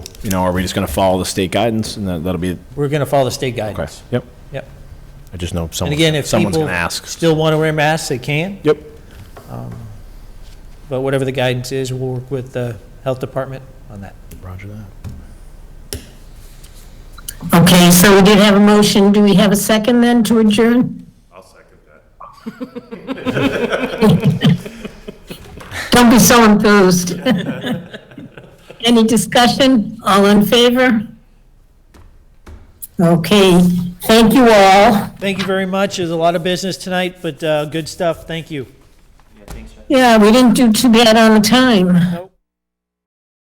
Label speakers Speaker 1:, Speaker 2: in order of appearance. Speaker 1: you know, are we just going to follow the state guidance and that- that'll be,
Speaker 2: We're going to follow the state
Speaker 1: okay,
Speaker 2: guidance.
Speaker 1: yep.
Speaker 2: Yep.
Speaker 1: I just know
Speaker 2: And
Speaker 1: someone's,
Speaker 2: again, if
Speaker 1: someone's
Speaker 2: people
Speaker 1: going to ask.
Speaker 2: still want to wear masks, they can,
Speaker 1: Yep,
Speaker 2: but whatever the guidance is, we'll work with the health department on that.
Speaker 1: roger that.
Speaker 3: Okay, so we did have a motion. Do we have a second then to adjourn?
Speaker 4: I'll second that.
Speaker 3: Don't be so enthused. Any discussion? All in favor? Okay, thank you all.
Speaker 2: Thank you very much. There's a lot of business tonight, but uh, good stuff. Thank you.
Speaker 3: Yeah, we didn't do too bad on the time.
Speaker 2: Nope.